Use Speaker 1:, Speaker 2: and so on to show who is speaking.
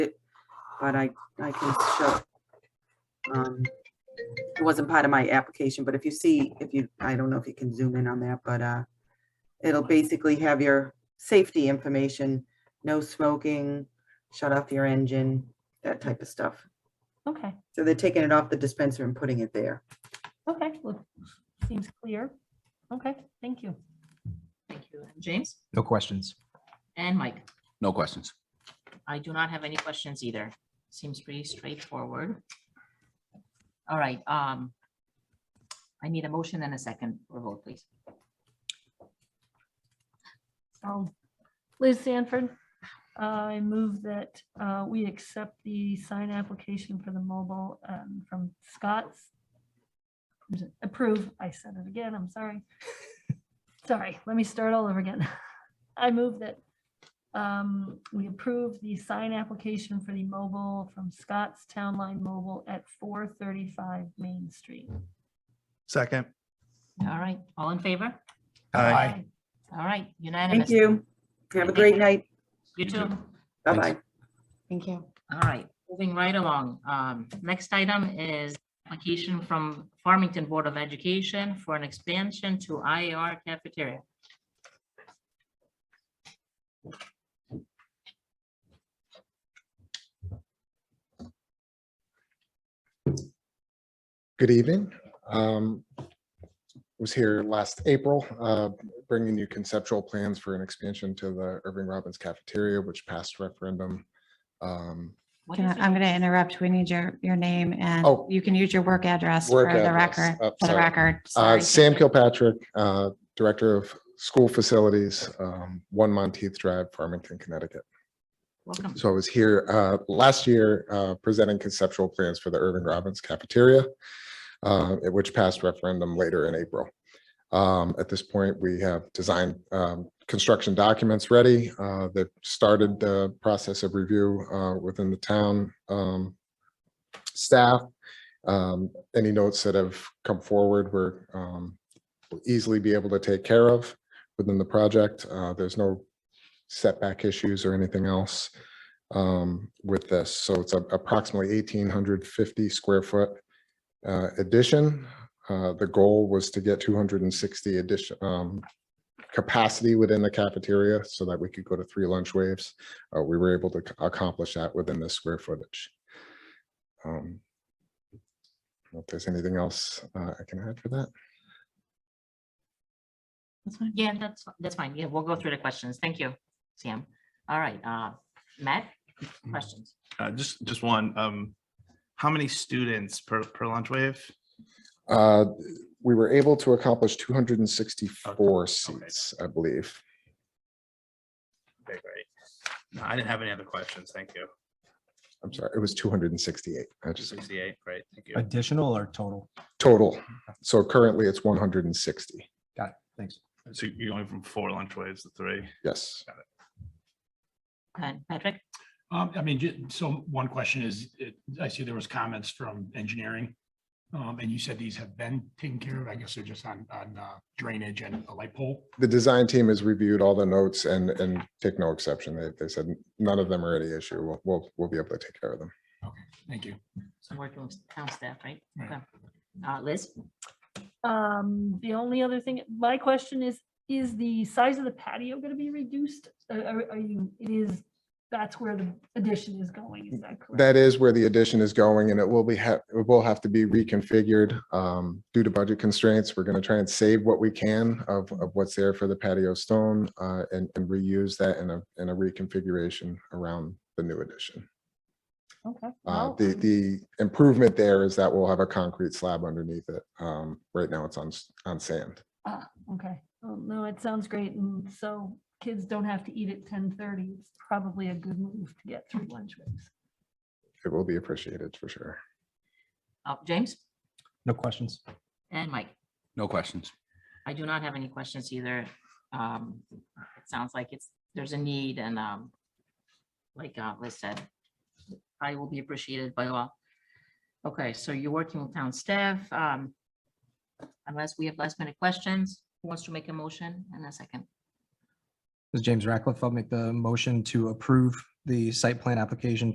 Speaker 1: but I, I can show. um, It wasn't part of my application, but if you see, if you, I don't know if you can zoom in on that, but uh, it'll basically have your safety information, no smoking, shut off your engine, that type of stuff.
Speaker 2: Okay,
Speaker 1: So they're taking it off the dispenser and putting it there.
Speaker 2: okay, well, seems clear. Okay, thank you.
Speaker 3: Thank you. And James
Speaker 4: No questions.
Speaker 3: and Mike,
Speaker 5: No questions.
Speaker 3: I do not have any questions either. Seems pretty straightforward. All right, um, I need a motion and a second for a vote, please.
Speaker 2: So, Um, Liz Sanford, I move that uh, we accept the sign application for the mobile um, from Scott's. Approve, I said it again, I'm sorry. Sorry, let me start all over again. I move that um, we approve the sign application for the mobile from Scott's Town Line Mobile at 435 Main Street.
Speaker 6: Second.
Speaker 3: All right, all in favor?
Speaker 6: Aye.
Speaker 3: All right, unanimous.
Speaker 1: Thank you. Have a great night.
Speaker 3: You too.
Speaker 1: Bye-bye.
Speaker 7: Thank you.
Speaker 3: All right, moving right along. Um, next item is application from Farmington Board of Education for an expansion to IAR cafeteria.
Speaker 8: Good evening. Um, Was here last April, uh, bringing you conceptual plans for an expansion to the Irving Robbins Cafeteria, which passed referendum. Um,
Speaker 3: What
Speaker 7: Can
Speaker 3: is
Speaker 7: I- I'm
Speaker 3: it?
Speaker 7: going to interrupt. We need your, your name and
Speaker 8: Oh.
Speaker 7: you can use your work address for
Speaker 8: Work
Speaker 7: the
Speaker 8: address.
Speaker 7: record,
Speaker 8: Oh,
Speaker 7: for the
Speaker 8: sorry.
Speaker 7: record.
Speaker 8: uh,
Speaker 7: Sorry.
Speaker 8: Sam Kilpatrick, uh, Director of School Facilities, um, One Monteith Drive, Farmington, Connecticut.
Speaker 3: Welcome.
Speaker 8: So I was here uh, last year uh, presenting conceptual plans for the Irving Robbins Cafeteria, uh, at which passed referendum later in April. Um, At this point, we have design um, construction documents ready uh, that started the process of review uh, within the town um, staff. Um, Any notes that have come forward were um, will easily be able to take care of within the project. Uh, There's no setback issues or anything else um, with this. So it's a- approximately eighteen hundred fifty square foot uh, addition. Uh, The goal was to get two hundred and sixty addition um, capacity within the cafeteria so that we could go to three lunch waves. Uh, We were able to ac- accomplish that within this square footage. Um, If there's anything else uh, I can add for that.
Speaker 7: That's fine.
Speaker 3: Yeah, that's, that's fine. Yeah, we'll go through the questions. Thank you, Sam. All right, uh, Matt, questions?
Speaker 9: Uh, just, just one, um, how many students per, per lunch wave?
Speaker 8: Uh, We were able to accomplish two hundred and sixty-four seats, I believe.
Speaker 9: Okay, great. No, I didn't have any other questions. Thank you.
Speaker 8: I'm sorry, it was two hundred and sixty-eight. I just
Speaker 9: Sixty-eight, great, thank you.
Speaker 4: Additional or total?
Speaker 8: total. So currently it's one hundred and sixty.
Speaker 4: Got it. Thanks.
Speaker 9: So you're going from four lunch waves to three?
Speaker 8: Yes.
Speaker 3: Uh, Patrick?
Speaker 10: Um, I mean, ju- so one question is, it- I see there was comments from engineering. Um, and you said these have been taken care of. I guess they're just on, on uh, drainage and a light pole.
Speaker 8: The design team has reviewed all the notes and, and take no exception. They, they said none of them are any issue. We'll, we'll, we'll be able to take care of them.
Speaker 10: Thank you.
Speaker 3: Some working with town staff, right?
Speaker 10: Right.
Speaker 3: Okay. Uh, Liz?
Speaker 2: Um, the only other thing, my question is, is the size of the patio gonna be reduced? Are- Are, are you, it is, that's where the addition is going, is that correct?
Speaker 8: That is where the addition is going and it will be, ha- it will have to be reconfigured. Um, due to budget constraints, we're going to try and save what we can of, of what's there for the patio stone, uh, and, and reuse that in a, in a reconfiguration around the new addition.
Speaker 2: Okay.
Speaker 8: Uh,
Speaker 2: well,
Speaker 8: The,
Speaker 2: um,
Speaker 8: the improvement there is that we'll have a concrete slab underneath it. Um, Right now, it's on, s- on sand.
Speaker 2: ah, Okay, Well, no, it sounds great, and so kids don't have to eat at ten thirty, it's probably a good move to get through lunch breaks.
Speaker 8: It will be appreciated for sure.
Speaker 3: Uh, James
Speaker 4: No questions.
Speaker 3: and Mike?
Speaker 5: No questions.
Speaker 3: I do not have any questions either. Um, it sounds like it's, there's a need and, um, like, uh, Liz said, I will be appreciated by all. Okay, so you're working with town staff, um, unless we have last minute questions, who wants to make a motion in a second?
Speaker 4: This is James Ratcliffe. I'll make the motion to approve the site plan application